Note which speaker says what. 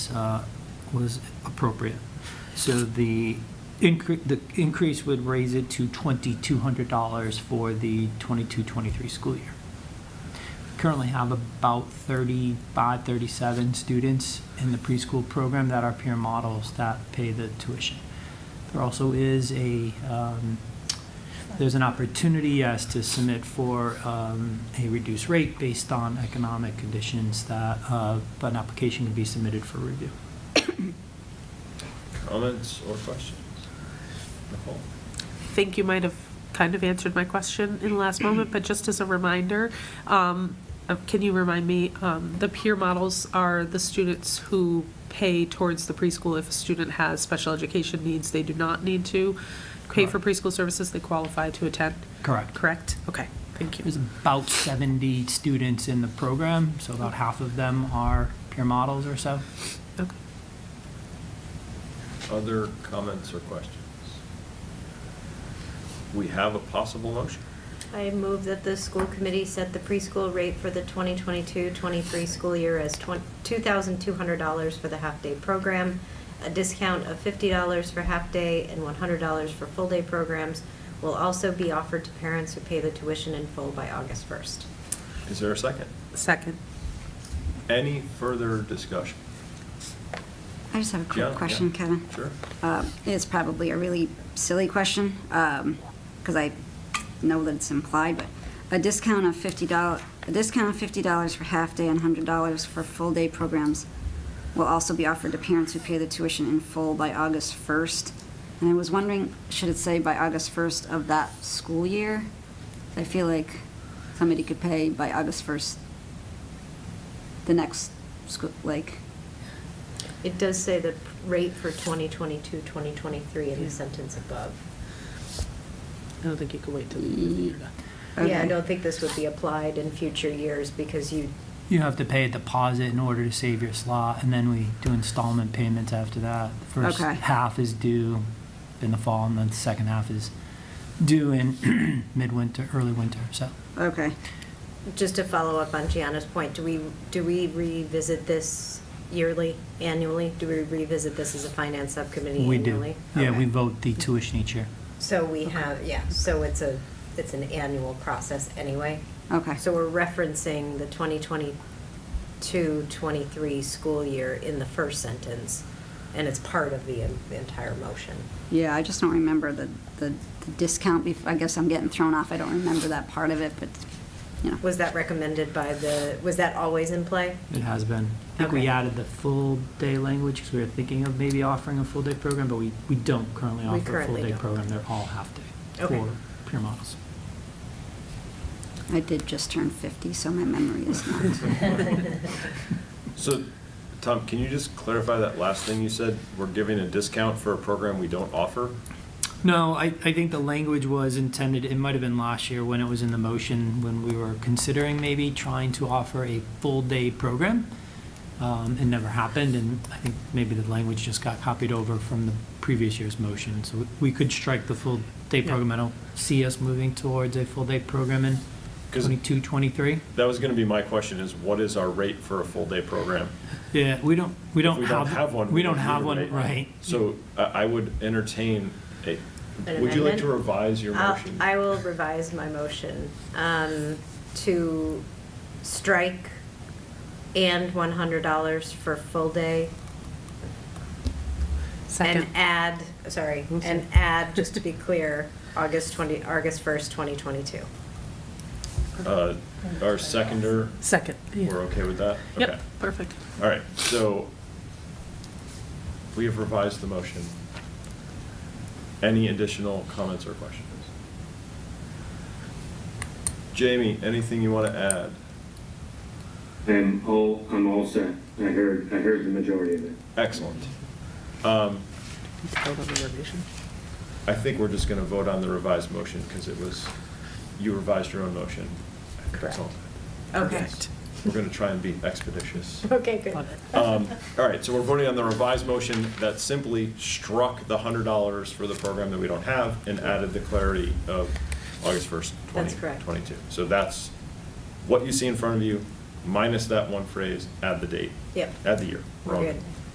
Speaker 1: uh, was appropriate. So the incre, the increase would raise it to $2,200 for the 22-23 school year. Currently have about 35, 37 students in the preschool program that are peer models that pay the tuition. There also is a, um, there's an opportunity, yes, to submit for um, a reduced rate based on economic conditions that, uh, but an application can be submitted for review.
Speaker 2: Comments or questions? Nicole?
Speaker 3: think you might have kind of answered my question in the last moment, but just as a reminder, um, uh, can you remind me, um, the peer models are the students who pay towards the preschool if a student has special education needs, they do not need to pay for preschool services, they qualify to attend,
Speaker 1: Correct.
Speaker 3: correct? Okay, thank you.
Speaker 1: There's about 70 students in the program, so about half of them are peer models or so.
Speaker 3: Okay.
Speaker 2: Other comments or questions? We have a possible motion.
Speaker 4: I move that the school committee set the preschool rate for the 2022-23 school year as twen- $2,200 for the half-day program, a discount of $50 for half-day and $100 for full-day programs will also be offered to parents who pay the tuition in full by August 1st.
Speaker 2: Is there a second?
Speaker 3: Second.
Speaker 2: Any further discussion?
Speaker 5: I just have a
Speaker 2: Yeah,
Speaker 5: quick
Speaker 2: yeah.
Speaker 5: question, Kevin.
Speaker 2: Sure.
Speaker 5: Uh, It's probably a really silly question, because I know that it's implied, but a discount of $50, a discount of $50 for half-day and $100 for full-day programs will also be offered to parents who pay the tuition in full by August 1st. And I was wondering, should it say by August 1st of that school year? I feel like somebody could pay by August 1st the next school, like,
Speaker 4: It does say the rate for 2022-2023 in the sentence above.
Speaker 3: I don't think you can wait till the end of the year.
Speaker 4: Yeah, I
Speaker 5: Okay.
Speaker 4: don't think this would be applied in future years because you
Speaker 1: You have to pay a deposit in order to save your slot, and then we do installment payments after that. The First
Speaker 5: Okay.
Speaker 1: half is due in the fall, and then the second half is due in midwinter, early winter, so.
Speaker 5: okay.
Speaker 4: Just to follow up on Gianna's point, do we, do we revisit this yearly, annually? Do we revisit this as a finance subcommittee
Speaker 1: We do.
Speaker 4: annually?
Speaker 1: Yeah,
Speaker 4: Okay.
Speaker 1: we vote the tuition each year.
Speaker 4: So we have, yeah, so it's a, it's an annual process anyway.
Speaker 5: Okay.
Speaker 4: So we're referencing the 2022-23 school year in the first sentence, and it's part of the en- entire motion.
Speaker 5: Yeah, I just don't remember the, the the discount, bef- I guess I'm getting thrown off, I don't remember that part of it, but, you know.
Speaker 4: Was that recommended by the, was that always in play?
Speaker 1: It has been. I think we
Speaker 4: Okay.
Speaker 1: added the full day language because we were thinking of maybe offering a full day program, but we, we don't currently
Speaker 4: We
Speaker 1: offer a full
Speaker 4: currently
Speaker 1: day
Speaker 4: don't.
Speaker 1: program. They're all half day
Speaker 4: Okay.
Speaker 1: for peer models.
Speaker 5: I did just turn 50, so my memory is not.
Speaker 2: So, Tom, can you just clarify that last thing you said? We're giving a discount for a program we don't offer?
Speaker 1: No, I, I think the language was intended, it might have been last year when it was in the motion, when we were considering maybe trying to offer a full day program. Um, it never happened, and I think maybe the language just got copied over from the previous year's motion. So we could strike the full day
Speaker 3: Yeah.
Speaker 1: program. I don't see us moving towards a full day program in
Speaker 2: 'Cause-
Speaker 1: twenty-two, twenty-three.
Speaker 2: That was going to be my question, is what is our rate for a full-day program?
Speaker 1: Yeah, we don't, we
Speaker 2: If
Speaker 1: don't have.
Speaker 2: one.
Speaker 1: We don't
Speaker 2: need
Speaker 1: have
Speaker 2: a
Speaker 1: one,
Speaker 2: rate.
Speaker 1: right.
Speaker 2: So I, I would entertain a,
Speaker 4: An
Speaker 2: would you like to
Speaker 4: amendment?
Speaker 2: revise your
Speaker 4: I'll-
Speaker 2: motion?
Speaker 4: I will revise my motion um, to strike and $100 for full day.
Speaker 3: Second.
Speaker 4: And add, sorry,
Speaker 3: Oops.
Speaker 4: and add, just to be clear, August 20, August 1st, 2022.
Speaker 2: Uh, Our seconder,
Speaker 3: Second. yeah.
Speaker 2: we're okay with that? Okay.
Speaker 3: Yep, perfect.
Speaker 2: All right, so we have revised the motion. Any additional comments or questions? Jamie, anything you want to add?
Speaker 6: I'm all, I'm all set. I heard, I heard the majority of it.
Speaker 2: Excellent. Um,
Speaker 3: Vote on the revision.
Speaker 2: I think we're just going to vote on the revised motion because it was, you revised your own motion.
Speaker 4: Correct.
Speaker 2: Excellent.
Speaker 4: Okay.
Speaker 2: We're going to try and be expeditious.
Speaker 4: Okay, good.
Speaker 3: Love it.
Speaker 2: Um, All right, so we're voting on the revised motion that simply struck the hundred dollars for the program that we don't have and added the clarity of August first, twenty
Speaker 4: That's correct.
Speaker 2: twenty-two. So that's what you see in front of you, minus that one phrase, add the date.
Speaker 4: Yep.
Speaker 2: Add the year. We're
Speaker 4: We're
Speaker 2: all
Speaker 4: good.